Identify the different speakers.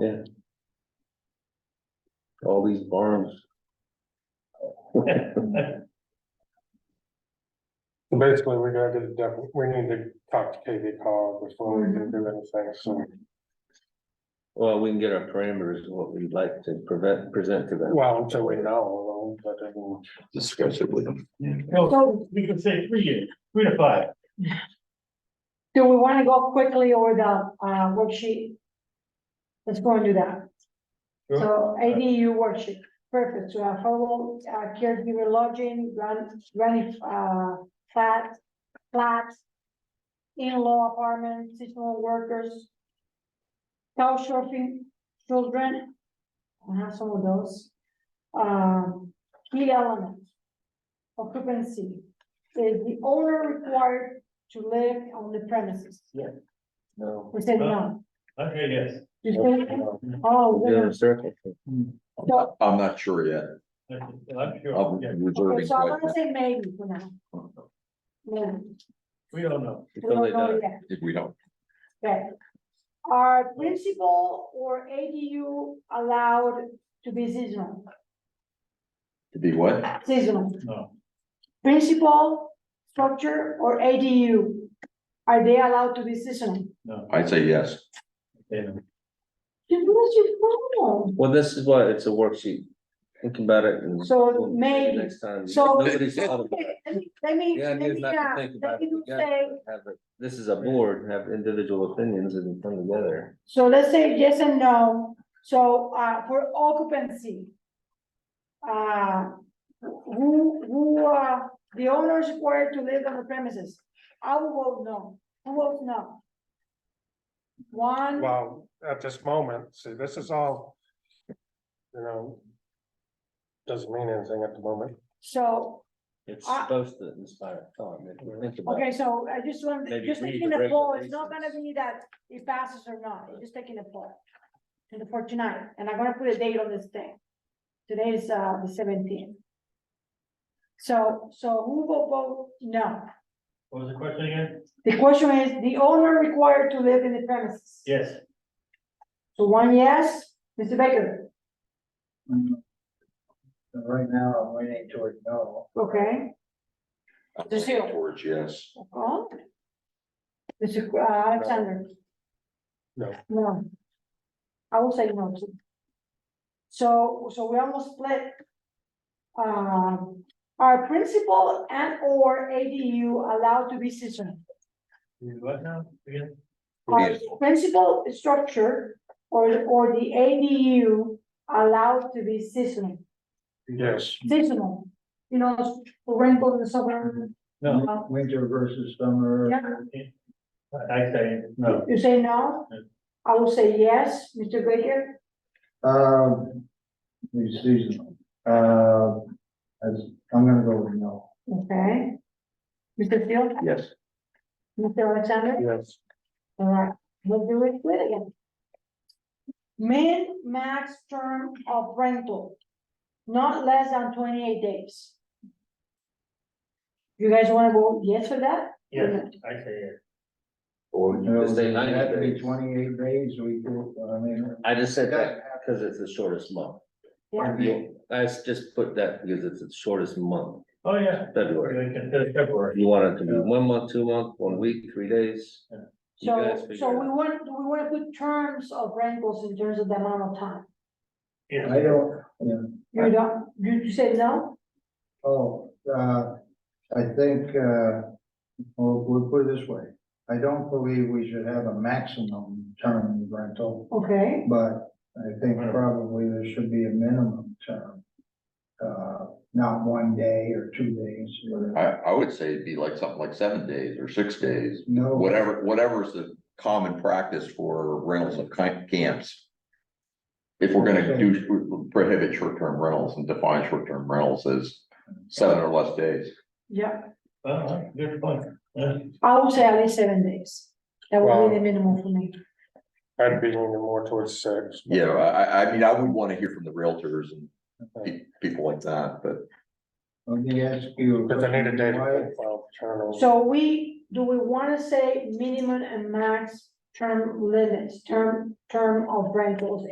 Speaker 1: Yeah. All these barns.
Speaker 2: So Basically, we gotta get it done, we need to talk to KV cog before we can do anything, so,
Speaker 1: Well, we can get our parameters of what we'd like to prevent, present to them.
Speaker 2: well, until we know, but I mean.
Speaker 3: discuss it with them.
Speaker 4: So-
Speaker 5: No, we can say three years, three to five.
Speaker 4: Do we wanna go quickly over the, uh, worksheet? Let's go and do that. So ADU worksheet, perfect, so affordable, uh, caregiver lodging, run, running, uh, flat, flats. In-law apartment, seasonal workers. Couch surfing, children. I have some of those. Um, key elements. Occupancy, is the owner required to live on the premises.
Speaker 1: No.
Speaker 4: We said no.
Speaker 5: Okay, yes.
Speaker 4: You said, oh,
Speaker 1: Doing
Speaker 4: yeah.
Speaker 1: a circle.
Speaker 4: so,
Speaker 3: I'm not sure yet. Um,
Speaker 5: I'm sure,
Speaker 3: I'm
Speaker 5: yeah,
Speaker 4: okay,
Speaker 3: reserving.
Speaker 4: so I'm gonna
Speaker 3: judgment.
Speaker 4: say maybe for now. Maybe.
Speaker 5: we don't know.
Speaker 4: We
Speaker 1: Until they
Speaker 4: don't know
Speaker 1: die.
Speaker 4: yet,
Speaker 3: If we don't,
Speaker 4: okay. Are principal or ADU allowed to be seasonal?
Speaker 3: to be what?
Speaker 4: Seasonal,
Speaker 5: No,
Speaker 4: principal, structure or ADU? Are they allowed to be seasonal?
Speaker 5: no.
Speaker 3: I'd say yes.
Speaker 5: they don't.
Speaker 4: You lose your phone.
Speaker 1: Well, this is why it's a worksheet. Think about it and.
Speaker 4: So
Speaker 1: we'll-
Speaker 4: maybe.
Speaker 1: Next time.
Speaker 4: So-
Speaker 1: Nobody's thought about it.
Speaker 4: Okay, Let me, let me,
Speaker 1: Yeah, I
Speaker 4: let
Speaker 1: need
Speaker 4: me,
Speaker 1: not
Speaker 4: uh,
Speaker 1: to think
Speaker 4: let
Speaker 1: about
Speaker 4: me
Speaker 1: it.
Speaker 4: do
Speaker 1: Yeah,
Speaker 4: say,
Speaker 1: have it. This is a board, have individual opinions and come together.
Speaker 4: So let's say yes and no, so, uh, for occupancy. Uh, who, who, uh, the owners required to live on the premises, I will vote no, who votes no? One,
Speaker 2: Well, at this moment, see, this is all. You know. Doesn't mean anything at the moment.
Speaker 4: so,
Speaker 1: It's
Speaker 4: Ah.
Speaker 1: supposed to inspire thought. if you think about
Speaker 4: okay,
Speaker 1: it.
Speaker 4: so I just want,
Speaker 1: Maybe
Speaker 4: just
Speaker 1: read
Speaker 4: taking
Speaker 1: the
Speaker 4: a poll, it's not gonna
Speaker 1: regulations.
Speaker 4: be that it passes or not, it's just taking a poll. And for tonight, and I'm gonna put a date on this thing. Today is, uh, the seventeenth. So, so who will vote no?
Speaker 5: What was the question again?
Speaker 4: The question is, the owner required to live in the premises?
Speaker 5: Yes.
Speaker 4: So one yes, Mr. Baker,
Speaker 6: Right now, I'm leaning toward no.
Speaker 4: okay,
Speaker 3: I'm
Speaker 4: Just you.
Speaker 3: Towards yes.
Speaker 4: oh. Mr. Qu- uh, Alexander?
Speaker 2: No.
Speaker 4: No. I will say no too. So, so we almost split. Um, are principal and or ADU allowed to be seasonal?
Speaker 5: You What now? Again?
Speaker 4: Are
Speaker 3: Yes.
Speaker 4: principal structure or, or the ADU allowed to be seasonal?
Speaker 2: Yes,
Speaker 4: seasonal, you know, rental in the summer,
Speaker 5: No,
Speaker 6: Winter versus summer.
Speaker 4: yeah,
Speaker 5: I I say no.
Speaker 4: you say no? I will say yes, Mr. Baker,
Speaker 6: Um, the seasonal, uh, as, I'm gonna go with no.
Speaker 4: okay. Mr. Field,
Speaker 3: Yes.
Speaker 4: Mr. Alexander,
Speaker 2: yes,
Speaker 4: all right, we'll do it with again. Min max term of rental, not less than twenty-eight days. You guys wanna go yes for that?
Speaker 5: Yes, I say yes.
Speaker 1: Or you could say
Speaker 6: It had to
Speaker 1: 90
Speaker 6: be
Speaker 1: days.
Speaker 6: Twenty-eight days, we, do- I mean.
Speaker 1: I just said that because it's the shortest month.
Speaker 4: Yeah,
Speaker 1: You- I s- just put that because it's the shortest month,
Speaker 5: Oh, yeah. We
Speaker 1: February.
Speaker 5: can consider February.
Speaker 1: You want it to be one month, two month, one week, three days?
Speaker 5: Yeah.
Speaker 1: You
Speaker 4: so,
Speaker 1: guys
Speaker 4: so
Speaker 1: figure
Speaker 4: we
Speaker 1: it out.
Speaker 4: want, we wanna put terms of rentals in terms of the amount of time,
Speaker 6: I don't, yeah,
Speaker 4: you don't, you you say no?
Speaker 6: oh, uh, I think, uh, well, we'll put it this way. I don't believe we should have a maximum term of rental.
Speaker 4: Okay,
Speaker 6: But I think probably there should be a minimum term. Uh, not one day or two days,
Speaker 3: I,
Speaker 6: or
Speaker 3: I would say it'd be like something like seven days or six days,
Speaker 6: no.
Speaker 3: whatever, whatever's the common practice for rentals of ki- camps. If we're gonna do, prohibit short-term rentals and define short-term rentals as seven or less days.
Speaker 4: yeah,
Speaker 5: Uh, good point. Yeah.
Speaker 4: I would say at least seven days. That would be
Speaker 2: Wow.
Speaker 4: the minimum for me.
Speaker 2: I'd be leaning more towards six.
Speaker 3: Yeah, I, I, I mean, I would wanna hear from the realtors and pe- people like that, but
Speaker 6: Let me ask you.
Speaker 2: But I need a data
Speaker 6: Why-
Speaker 2: profile turnover.
Speaker 4: So we, do we wanna say minimum and max term limits, term, term of rentals